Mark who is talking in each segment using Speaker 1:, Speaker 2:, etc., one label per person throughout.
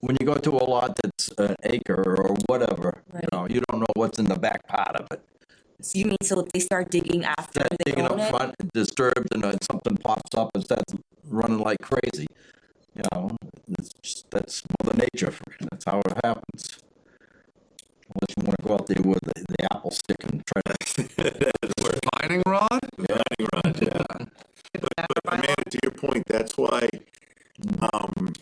Speaker 1: when you go to a lot that's an acre or whatever, you
Speaker 2: Right.
Speaker 1: know, you don't know what's in the back part of it.
Speaker 2: You mean, so they start digging after
Speaker 1: That
Speaker 2: they
Speaker 1: digging up
Speaker 2: own it?
Speaker 1: front it disturbs and then something pops up and starts running like crazy. You know, it's just, that's mother nature. That's how it happens. Unless you want to go out there with the, the apple stick and try to
Speaker 3: Fighting rod?
Speaker 4: But man, to your point, that's why um,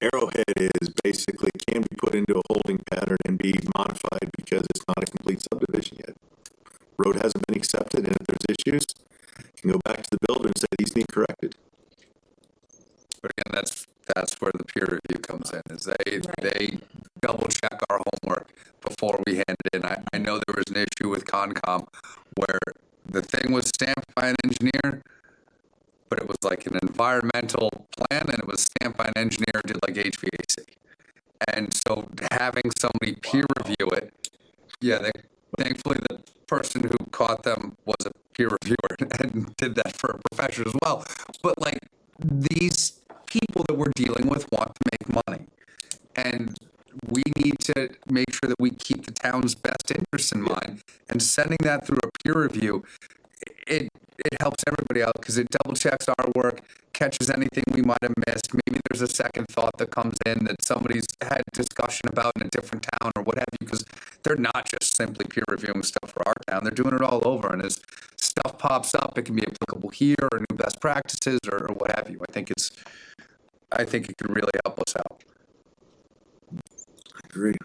Speaker 4: Arrowhead is basically can be put into a holding pattern and be modified because it's not a complete subdivision yet. Road hasn't been accepted, and if there's issues, you can go back to the builder and say these need corrected.
Speaker 3: But again, that's, that's where the peer review comes in, is they, they double check our homework before we hand it in. I, I know there was an issue with Concom where the thing was stamped by an engineer, but it was like an environmental plan and it was stamped by an engineer who did like HVAC. And so having somebody peer review it, yeah, they, thankfully the person who caught them was a peer reviewer and did that for a profession as well. But like these people that we're dealing with want to make money. And we need to make sure that we keep the town's best interests in mind and sending that through a peer review. It, it helps everybody out because it double checks our work, catches anything we might have missed. Maybe there's a second thought that comes in that somebody's had discussion about in a different town or what have you, because they're not just simply peer reviewing stuff for our town. They're doing it all over. And as stuff pops up, it can be applicable here or new best practices or, or what have you. I think it's, I think it could really help us out.
Speaker 4: Agreed.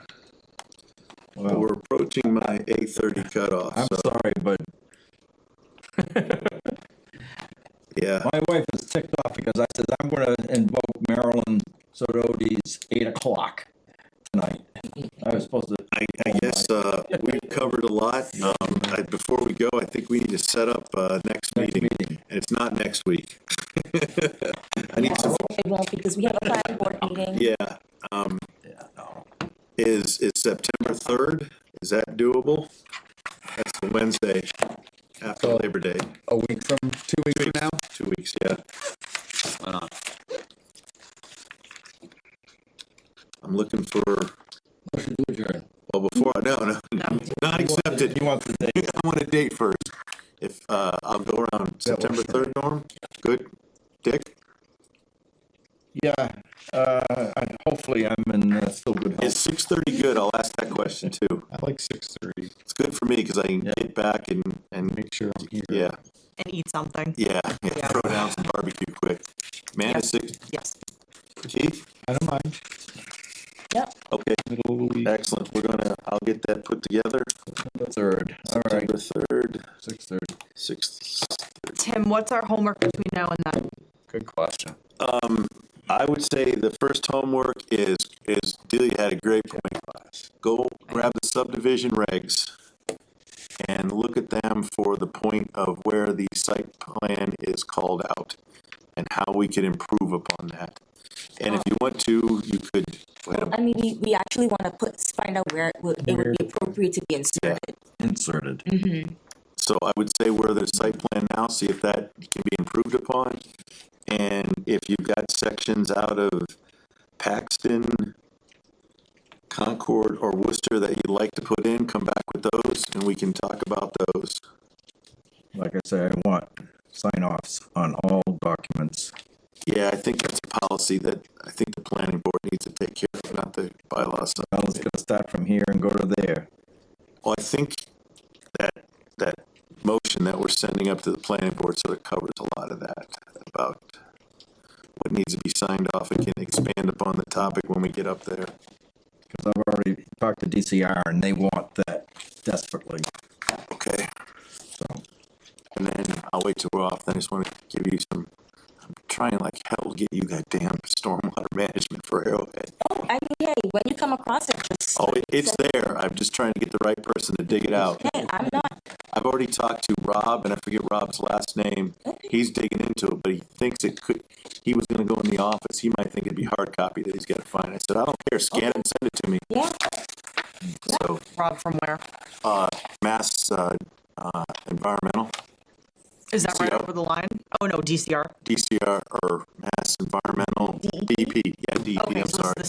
Speaker 4: But we're approaching my eight thirty cutoff,
Speaker 1: I'm
Speaker 4: so
Speaker 1: sorry, but
Speaker 4: yeah,
Speaker 1: my wife is ticked off because I said I'm going to invoke Marilyn Sododi's eight o'clock tonight. I was supposed to.
Speaker 4: I, I guess, uh, we've covered a lot. Um, I, before we go, I think we need to set up, uh, next meeting. And
Speaker 1: meeting.
Speaker 4: it's not next week. I need some
Speaker 2: It won't because we have a planning board meeting.
Speaker 4: Yeah, um, is, is September third, is that doable? That's the Wednesday after Labor Day,
Speaker 3: a week from two weeks from now.
Speaker 4: two weeks, yeah. I'm looking for, well, before, no, no, not accepted,
Speaker 1: You want the date?
Speaker 4: I want a date first. If, uh, I'll go around September third, Norm, good, Dick,
Speaker 1: Yeah, uh, I- hopefully I'm in uh, still good health.
Speaker 4: is six thirty good, I'll ask that question too.
Speaker 5: I like six thirty,
Speaker 4: It's good for me, cause I can get back and, and,
Speaker 5: make sure I'm here.
Speaker 4: yeah.
Speaker 6: and eat something.
Speaker 4: Yeah, yeah, throw down some barbecue quick. Man, is six,
Speaker 6: Yes.
Speaker 4: chief?
Speaker 5: I don't mind,
Speaker 2: Yep.
Speaker 4: Okay,
Speaker 5: middle of the week,
Speaker 4: excellent. We're gonna, I'll get that put together.
Speaker 1: Third, all right,
Speaker 4: September third,
Speaker 1: six thirty.
Speaker 4: sixth.
Speaker 6: Tim, what's our homework between now and then?
Speaker 3: Good question.
Speaker 4: I would say the first homework is, is Delia had a great point. Go grab the subdivision regs and look at them for the point of where the site plan is called out and how we can improve upon that. And if you want to, you could, go ahead.
Speaker 2: I mean, we, we actually want to put, find out where it would, it would be appropriate to be inserted.
Speaker 1: Inserted.
Speaker 4: So I would say where there's site plan now, see if that can be improved upon. And if you've got sections out of Paxton, Concord, or Worcester that you'd like to put in, come back with those and we can talk about those.
Speaker 1: Like I say, I want sign offs on all documents.
Speaker 4: Yeah, I think that's a policy that I think the planning board needs to take care of, not the bylaws.
Speaker 1: I was gonna start from here and go to there.
Speaker 4: Well, I think that, that motion that we're sending up to the planning board sort of covers a lot of that about what needs to be signed off and can expand upon the topic when we get up there.
Speaker 1: Cause I've already talked to DCR and they want that desperately,
Speaker 4: Okay.
Speaker 1: so.
Speaker 4: And then I'll wait till we're off. Then I just want to give you some, I'm trying like hell to get you that damn stormwater management for Arrowhead.
Speaker 2: Oh, I mean, hey, when you come across it, just,
Speaker 4: Oh, it- it's there. I'm just trying to get the right person to dig it out.
Speaker 2: hey, I'm not,
Speaker 4: I've already talked to Rob, and I forget Rob's last name. He's digging into it, but he thinks it could. He was going to go in the office. He might think it'd be hard copy that he's got to find. I said, I don't care. Scan it and send it to me.
Speaker 2: yeah,
Speaker 4: So,
Speaker 6: Rob from where?
Speaker 4: uh, Mass uh, uh, Environmental,
Speaker 6: Is that right
Speaker 4: DCR.
Speaker 6: over the line? Oh, no, DCR.
Speaker 4: DCR, or Mass Environmental, DEP. Yeah, DEP.
Speaker 6: E Okay,
Speaker 4: I'm
Speaker 6: so
Speaker 4: sorry.
Speaker 6: it's the